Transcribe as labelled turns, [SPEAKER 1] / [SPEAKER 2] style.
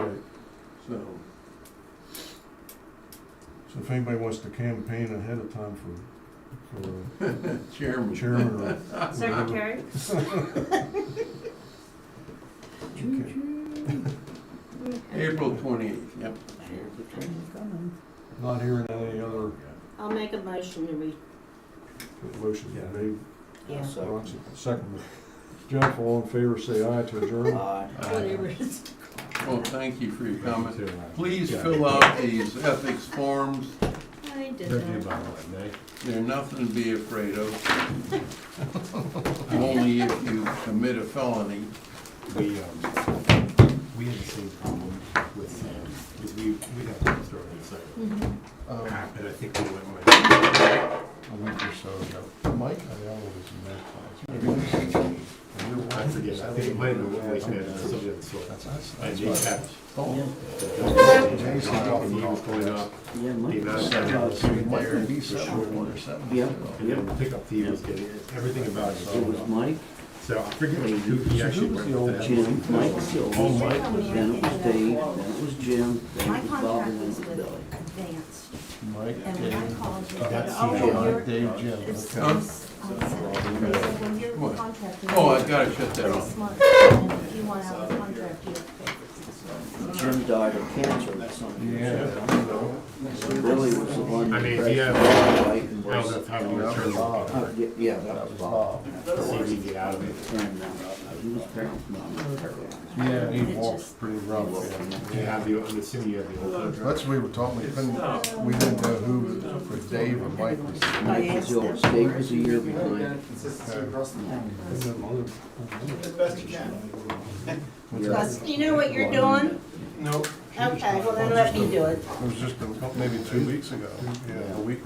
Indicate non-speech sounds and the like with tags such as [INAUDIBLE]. [SPEAKER 1] So. So if anybody wants to campaign ahead of time for, for
[SPEAKER 2] [LAUGHS] Chairman.
[SPEAKER 1] chairman or.
[SPEAKER 3] Secretary?
[SPEAKER 1] Okay.
[SPEAKER 2] April twenty-eighth, yep.
[SPEAKER 1] Not hearing any other
[SPEAKER 3] I'll make a motion to re,
[SPEAKER 1] motions
[SPEAKER 4] Yeah.
[SPEAKER 1] made.
[SPEAKER 3] yeah.
[SPEAKER 1] Roxy, second. Jeff, all in favor, say aye to adjourn.
[SPEAKER 5] Uh,
[SPEAKER 3] Whatever it is.
[SPEAKER 2] Well, thank you for your comments.
[SPEAKER 4] Too, right.
[SPEAKER 2] Please
[SPEAKER 4] Yeah.
[SPEAKER 2] fill out these ethics forms.
[SPEAKER 3] [LAUGHS] I did
[SPEAKER 4] Review
[SPEAKER 3] that.
[SPEAKER 4] by the way, Nate.
[SPEAKER 2] They're nothing to be afraid of. Only if you commit a felony.
[SPEAKER 4] We, um, we had the same problem with Sam, because we, we had to throw in a second. Um, and I think we went with, a week or so ago. Mike, I always met. I forget, I think it might have been when we met, uh, somebody of the sort. I did catch.
[SPEAKER 2] Oh,
[SPEAKER 4] When he was going up,
[SPEAKER 6] Yeah,
[SPEAKER 4] the
[SPEAKER 6] Mike.
[SPEAKER 4] amount of time I was sitting there, it was short.
[SPEAKER 6] Yeah,
[SPEAKER 4] And
[SPEAKER 6] yeah.
[SPEAKER 4] then the pickup fee was getting, everything about it.
[SPEAKER 6] It was Mike,
[SPEAKER 4] So I forget who he actually went with that.
[SPEAKER 6] Jim, Mike Silver.
[SPEAKER 4] Oh, Mike.
[SPEAKER 6] Then it was Dave, then it was Jim, then
[SPEAKER 5] My
[SPEAKER 6] it was Bob,
[SPEAKER 5] contract
[SPEAKER 6] and then
[SPEAKER 5] was
[SPEAKER 6] it was
[SPEAKER 5] with
[SPEAKER 6] Billy.
[SPEAKER 5] Advanced,
[SPEAKER 1] Mike,
[SPEAKER 5] and when I called you.
[SPEAKER 4] That's
[SPEAKER 5] oh,
[SPEAKER 4] Jim.
[SPEAKER 5] well, you're-
[SPEAKER 1] Dave, Jim,
[SPEAKER 5] it's- it's-
[SPEAKER 2] okay.
[SPEAKER 5] I said, they said, when your
[SPEAKER 2] What?
[SPEAKER 5] contract is
[SPEAKER 2] Oh, I gotta shut that off.
[SPEAKER 5] Six months, and if you want out of the contract, you have to pay.
[SPEAKER 6] Jim died of cancer or something.
[SPEAKER 1] Yeah.
[SPEAKER 6] Billy was the one.
[SPEAKER 4] I mean,
[SPEAKER 6] that
[SPEAKER 4] yeah.
[SPEAKER 6] crashed my bike and
[SPEAKER 4] That was
[SPEAKER 6] was-
[SPEAKER 4] a time we were trying
[SPEAKER 6] Uh,
[SPEAKER 4] to
[SPEAKER 6] yeah, Yeah, that was Bob.
[SPEAKER 4] see if we could get out of it.
[SPEAKER 6] And, uh, he was paralyzed, no, he was paralyzed.
[SPEAKER 5] Oh,
[SPEAKER 1] Yeah, he
[SPEAKER 5] It's
[SPEAKER 1] walks
[SPEAKER 5] just-
[SPEAKER 1] pretty rough.
[SPEAKER 4] You have the, I'm assuming you have the old contract.
[SPEAKER 7] That's what we were talking, we couldn't, we didn't know who, for Dave or Mike was.
[SPEAKER 5] I
[SPEAKER 6] Mike
[SPEAKER 5] asked
[SPEAKER 6] Silver,
[SPEAKER 5] them.
[SPEAKER 6] Dave was a year behind. Yeah.
[SPEAKER 3] Gus, you know what you're doing?
[SPEAKER 1] Nope.
[SPEAKER 3] Okay, well then let me do it.
[SPEAKER 7] It was just a couple, maybe two weeks ago, a week